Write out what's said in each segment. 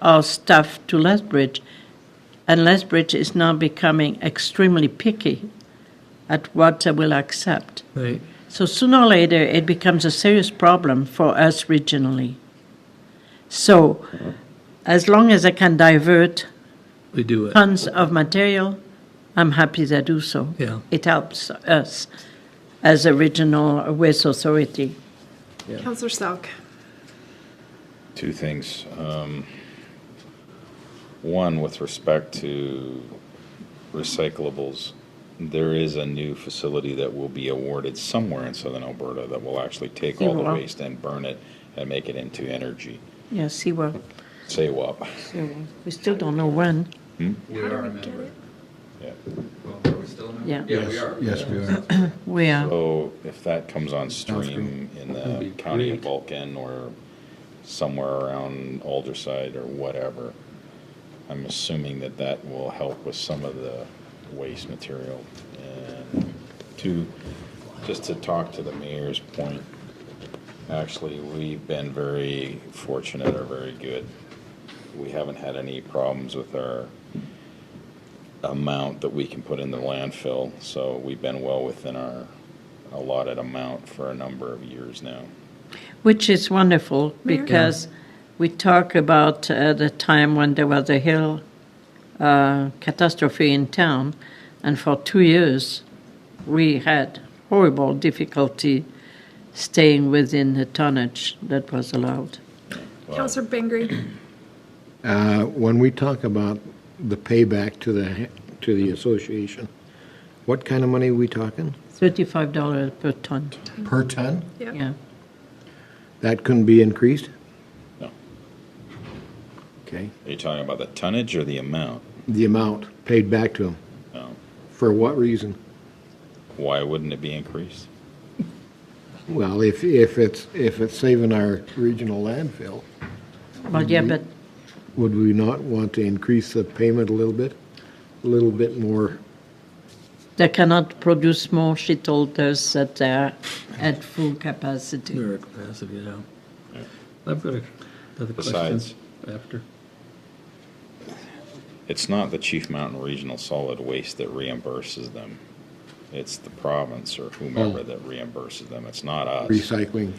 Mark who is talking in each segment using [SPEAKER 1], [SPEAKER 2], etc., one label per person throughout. [SPEAKER 1] of stuff to Lethbridge, and Lethbridge is now becoming extremely picky at what they will accept.
[SPEAKER 2] Right.
[SPEAKER 1] So sooner or later, it becomes a serious problem for us regionally. So, as long as I can divert
[SPEAKER 2] We do it.
[SPEAKER 1] tons of material, I'm happy to do so.
[SPEAKER 2] Yeah.
[SPEAKER 1] It helps us as a regional waste authority.
[SPEAKER 3] Counselor Selk.
[SPEAKER 4] two things. Um, One, with respect to recyclables, there is a new facility that will be awarded somewhere in southern Alberta that will actually take all the
[SPEAKER 1] Seawall.
[SPEAKER 4] waste and burn it and make it into energy.
[SPEAKER 1] Yeah, see what,
[SPEAKER 4] Say what?
[SPEAKER 1] we still don't know when,
[SPEAKER 5] We are a member.
[SPEAKER 4] Yeah.
[SPEAKER 5] Well, are we still a member?
[SPEAKER 1] Yeah.
[SPEAKER 5] Yeah, we are.
[SPEAKER 6] Yes, we are.
[SPEAKER 1] we are.
[SPEAKER 4] So if that comes on stream in the county of Vulcan or somewhere around Alderside or whatever, I'm assuming that that will help with some of the waste material. And to, just to talk to the mayor's point, actually, we've been very fortunate or very good. We haven't had any problems with our amount that we can put in the landfill, so we've been well within our allotted amount for a number of years now.
[SPEAKER 1] Which is wonderful because we talk about uh, the time when there was a hill uh, catastrophe in town, and for two years we had horrible difficulty staying within the tonnage that was allowed.
[SPEAKER 3] Counselor Bengry.
[SPEAKER 6] Uh, When we talk about the payback to the, to the association, what kind of money are we talking?
[SPEAKER 1] Thirty-five dollars per ton.
[SPEAKER 6] Per ton?
[SPEAKER 3] Yeah.
[SPEAKER 1] Yeah,
[SPEAKER 6] That couldn't be increased?
[SPEAKER 4] No.
[SPEAKER 6] Okay.
[SPEAKER 4] Are you talking about the tonnage or the amount?
[SPEAKER 6] The amount paid back to them,
[SPEAKER 4] No.
[SPEAKER 6] for what reason?
[SPEAKER 4] Why wouldn't it be increased?
[SPEAKER 6] Well, if, if it's, if it's saving our regional landfill,
[SPEAKER 1] well, yeah, but
[SPEAKER 6] would we not want to increase the payment a little bit? A little bit more,
[SPEAKER 1] they cannot produce more. She told us that they're at full capacity.
[SPEAKER 2] We're at capacity now. I've got a- another question
[SPEAKER 4] Besides-
[SPEAKER 2] after.
[SPEAKER 4] It's not the Chief Mountain Regional Solid Waste that reimburses them. It's the province or whomever that reimburses them. It's not us.
[SPEAKER 6] recycling,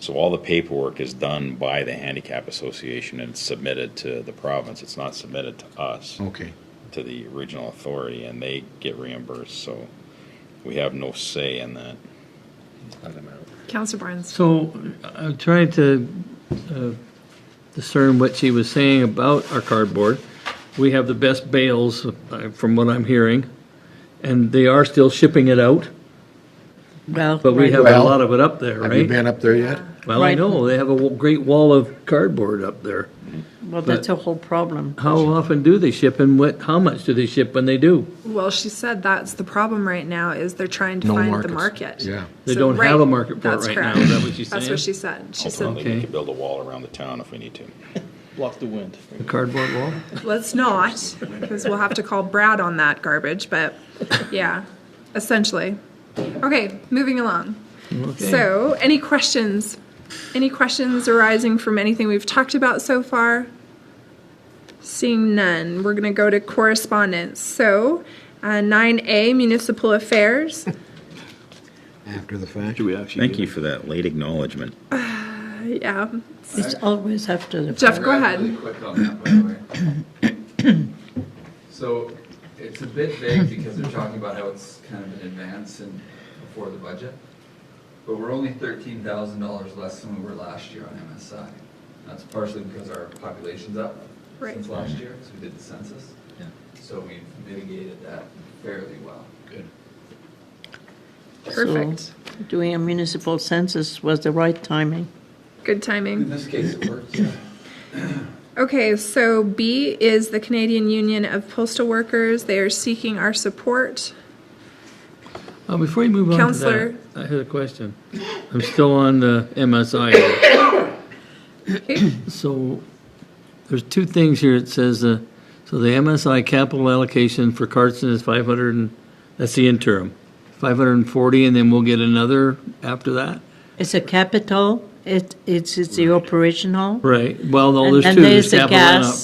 [SPEAKER 4] So all the paperwork is done by the Handicap Association and submitted to the province. It's not submitted to us.
[SPEAKER 6] okay.
[SPEAKER 4] to the regional authority and they get reimbursed, so we have no say in that.
[SPEAKER 3] Counselor Barnes.
[SPEAKER 2] So I'm trying to uh, discern what she was saying about our cardboard. We have the best bales, uh, from what I'm hearing, and they are still shipping it out,
[SPEAKER 1] Well,
[SPEAKER 2] but we
[SPEAKER 1] right-
[SPEAKER 2] have a
[SPEAKER 6] Well,
[SPEAKER 2] lot of it up there,
[SPEAKER 6] Have you
[SPEAKER 2] right?
[SPEAKER 6] been up there yet?
[SPEAKER 2] Well, I
[SPEAKER 1] Right.
[SPEAKER 2] know, they have a w- great wall of cardboard up there.
[SPEAKER 1] well, that's a whole problem.
[SPEAKER 2] How often do they ship and what, how much do they ship when they do?
[SPEAKER 3] Well, she said that's the problem right now is they're trying to
[SPEAKER 6] No
[SPEAKER 3] find
[SPEAKER 6] markets.
[SPEAKER 3] the market.
[SPEAKER 6] Yeah.
[SPEAKER 2] They
[SPEAKER 3] So,
[SPEAKER 2] don't have
[SPEAKER 3] right,
[SPEAKER 2] a market for it
[SPEAKER 3] that's
[SPEAKER 2] right now,
[SPEAKER 3] correct.
[SPEAKER 2] is that what she's
[SPEAKER 3] That's
[SPEAKER 2] saying?
[SPEAKER 3] what she said. She said,
[SPEAKER 4] Ultimately,
[SPEAKER 2] Okay.
[SPEAKER 4] we could build a wall around the town if we need to.
[SPEAKER 7] Block the wind.
[SPEAKER 2] The cardboard wall?
[SPEAKER 3] let's not, because we'll have to call Brad on that garbage, but yeah, essentially. Okay, moving along. So, any questions? Any questions arising from anything we've talked about so far? Seeing none, we're going to go to correspondence. So, uh, 9A, Municipal Affairs.
[SPEAKER 6] After the fact?
[SPEAKER 7] Do we actually?
[SPEAKER 4] Thank you for that late acknowledgement.
[SPEAKER 3] Uh, Yeah.
[SPEAKER 1] It's always after the.
[SPEAKER 3] Jeff, go ahead.
[SPEAKER 5] Really quick on that, by the way. So it's a bit vague because they're talking about how it's kind of in advance and before the budget. But we're only thirteen thousand dollars less than we were last year on MSI. That's partially because our population's up
[SPEAKER 3] Right.
[SPEAKER 5] since last year, because we did the census. So we've mitigated that fairly well. Good.
[SPEAKER 3] Perfect.
[SPEAKER 1] So Doing a municipal census was the right timing.
[SPEAKER 3] Good
[SPEAKER 5] In
[SPEAKER 3] timing.
[SPEAKER 5] this case, it worked. yeah.
[SPEAKER 3] Okay, so B is the Canadian Union of Postal Workers. They are seeking our support.
[SPEAKER 2] Uh, Before you move on to that,
[SPEAKER 3] Counselor.
[SPEAKER 2] I had a question. I'm still on the MSI. So there's two things here. It says, uh, so the MSI capital allocation for Carson is 500, and that's the interim, 540, and then we'll get another after that?
[SPEAKER 1] It's a capital, it, it's, it's the operational.
[SPEAKER 2] Right, well, no,
[SPEAKER 1] And
[SPEAKER 2] there's
[SPEAKER 1] then
[SPEAKER 2] two,
[SPEAKER 1] there's
[SPEAKER 2] there's
[SPEAKER 1] the
[SPEAKER 2] capital and
[SPEAKER 1] gas.
[SPEAKER 2] up.